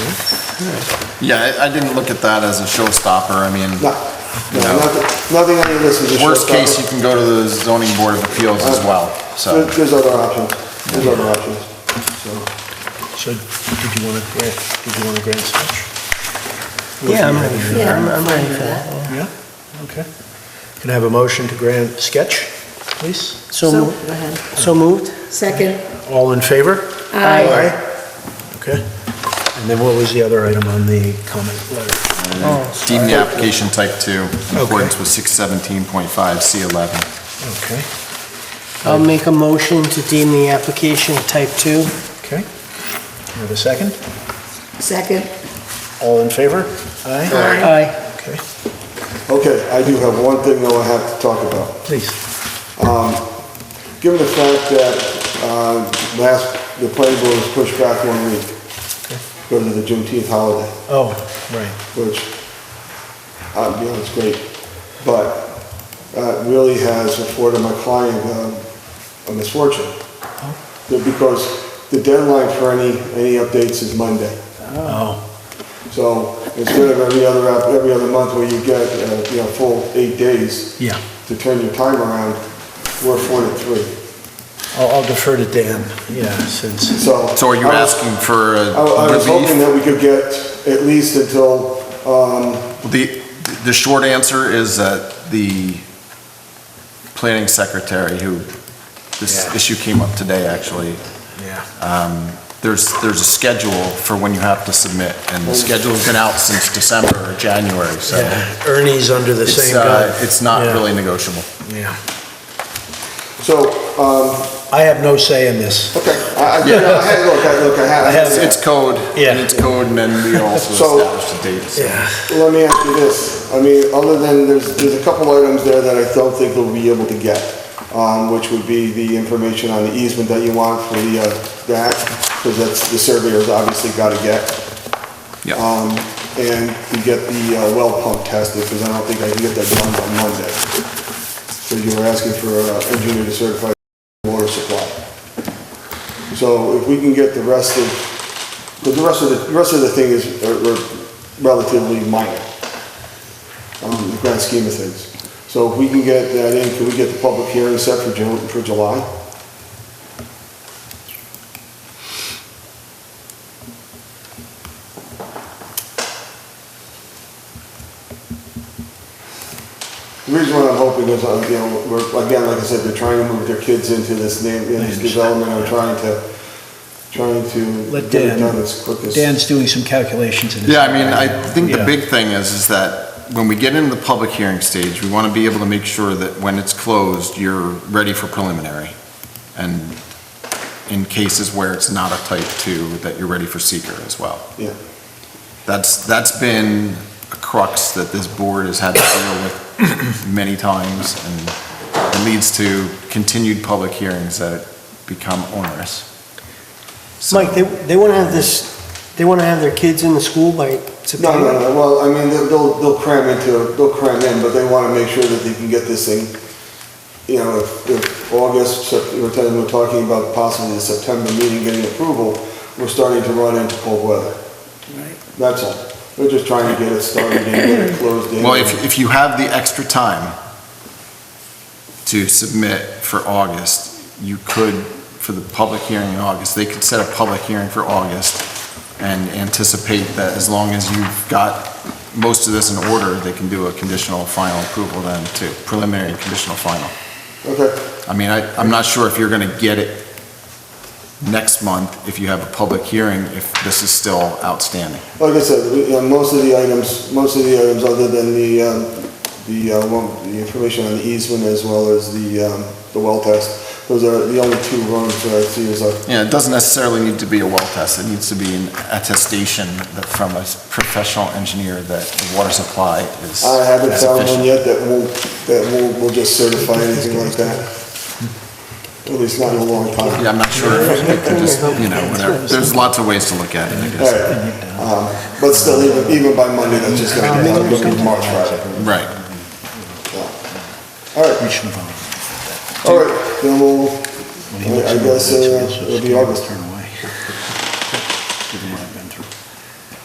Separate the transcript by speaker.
Speaker 1: Hmm?
Speaker 2: Yeah, I- I didn't look at that as a showstopper, I mean,
Speaker 3: No, no,
Speaker 2: No.
Speaker 3: nothing, nothing any of this is a showstopper.
Speaker 2: worst case, you can go to the zoning board of appeals as well, so.
Speaker 3: There- There's other options, there's other options, so.
Speaker 1: So did you want to grant, did you want to grant such?
Speaker 4: Yeah, I'm ready for that. I'm- I'm ready for that.
Speaker 1: Yeah, okay. Can I have a motion to grant sketch, please?
Speaker 4: So,
Speaker 5: So,
Speaker 4: mo-
Speaker 5: go ahead.
Speaker 4: so moved?
Speaker 5: Second.
Speaker 1: All in favor?
Speaker 5: Aye.
Speaker 1: Okay. And then what was the other item on the comment letter?
Speaker 4: Oh,
Speaker 2: Deem the application type two in
Speaker 1: Okay.
Speaker 2: accordance with six seventeen point five C eleven.
Speaker 1: Okay,
Speaker 4: I'll make a motion to deem the application type 2.
Speaker 1: okay. Can I have a second?
Speaker 5: Second.
Speaker 1: All in favor? Aye.
Speaker 4: Aye.
Speaker 1: Okay,
Speaker 3: Okay, I do have one thing though I have to talk about.
Speaker 1: please.
Speaker 3: Given the fact that, uh, last, the planning board was pushed back one week because of the Juneteenth holiday,
Speaker 1: Oh, right,
Speaker 3: which, uh, I'll be honest, great, but, uh, really has afforded my client, um, a misfortune. Because the deadline for any, any updates is Monday.
Speaker 1: oh,
Speaker 3: So instead of every other, app- every other month where you get, uh, you know, full eight days
Speaker 1: yeah.
Speaker 3: to turn your time around, we're four to three,
Speaker 1: I'll I'll defer to Dan, yeah, since,
Speaker 3: so.
Speaker 2: So are you
Speaker 3: I was-
Speaker 2: asking for
Speaker 3: I I
Speaker 2: a
Speaker 3: was
Speaker 2: relief?
Speaker 3: hoping that we could get at least until, um,
Speaker 2: The, the short answer is that the planning secretary who, this
Speaker 1: Yeah.
Speaker 2: issue came up today, actually,
Speaker 1: yeah.
Speaker 2: there's, there's a schedule for when you have to submit, and the schedule's been out since December or January, so
Speaker 1: Yeah, Ernie's under the
Speaker 2: Uh, it's,
Speaker 1: same
Speaker 2: uh,
Speaker 1: gun.
Speaker 2: it's not
Speaker 1: Yeah,
Speaker 2: really negotiable.
Speaker 1: Yeah.
Speaker 3: so, um,
Speaker 1: I have no say in this.
Speaker 3: okay, I, I, yeah, I had, look, I, look, I had.
Speaker 1: I have-
Speaker 2: It's it's code,
Speaker 1: Yeah.
Speaker 2: and it's code, and then we also
Speaker 3: So-
Speaker 2: establish the dates.
Speaker 1: Yeah.
Speaker 3: Let me ask you this, I mean, other than, there's, there's a couple items there that I don't think we'll be able to get, um, which would be the information on the easement that you want for the, uh, that, because that's, the surveyor's obviously gotta get,
Speaker 2: Yeah.
Speaker 3: and to get the uh, well pump tested, because I don't think I can get that done by Monday. So you were asking for an engineer to certify water supply. So if we can get the rest of, but the rest of the, the rest of the thing is are- are relatively minor, um, in the grand scheme of things. So if we can get that in, can we get the public hearing set for Ju, for July? The reason why I'm hoping is, uh, you know, we're, again, like I said, they're trying to move their kids into this name, into this
Speaker 1: understand.
Speaker 3: development, I'm trying to, trying to
Speaker 1: Let
Speaker 3: get it
Speaker 1: Dan-
Speaker 3: done as quick as.
Speaker 1: Dan's doing some calculations in his.
Speaker 2: Yeah, I mean, I think the
Speaker 1: Yeah.
Speaker 2: big thing is, is that when we get into the public hearing stage, we want to be able to make sure that when it's closed, you're ready for preliminary. And in cases where it's not a type two, that you're ready for seeker as well.
Speaker 3: Yeah.
Speaker 2: That's, that's been a crux that this board has had to deal with many times, and it leads to continued public hearings that become onerous. So-
Speaker 4: Mike, they, they want to have this, they want to have their kids in the school by
Speaker 3: No, no,
Speaker 4: September?
Speaker 3: no, well, I mean, they'll- they'll, they'll cram into, they'll cram in, but they wanna make sure that they can get this thing, you know, if, if August, Sep- we're telling, we're talking about possibly the September meeting getting approval, we're starting to run into cold weather.
Speaker 5: Right.
Speaker 3: That's all. We're just trying to get it started and get it closed in.
Speaker 2: Well, if, if you have the extra time to submit for August, you could, for the public hearing in August, they could set a public hearing for August and anticipate that as long as you've got most of this in order, they can do a conditional final approval then to preliminary conditional final.
Speaker 3: Okay,
Speaker 2: I mean, I, I'm not sure if you're gonna get it next month if you have a public hearing, if this is still outstanding.
Speaker 3: like I said, we- you know, most of the items, most of the items, other than the, um, the, uh, one, the information on the easement as well as the, um, the well test, those are the only two rooms that I see is like,
Speaker 2: Yeah, it doesn't necessarily need to be a well test, it needs to be an attestation that from a professional engineer that the water supply is
Speaker 3: I haven't
Speaker 2: is
Speaker 3: found one
Speaker 2: efficient.
Speaker 3: yet that will, that will, will just certify anything like that. At least not in a long time.
Speaker 2: Yeah, I'm not sure if it could just, you know, whatever, there's lots of ways to look at it, I
Speaker 3: All
Speaker 2: guess.
Speaker 3: right, um, but still, even, even by Monday, that's just gonna be, I'm looking at March, right?
Speaker 2: Right,
Speaker 3: All right,
Speaker 1: We should vote.
Speaker 3: all right, then we'll, I I guess, uh, it'll be August.
Speaker 1: Turn away.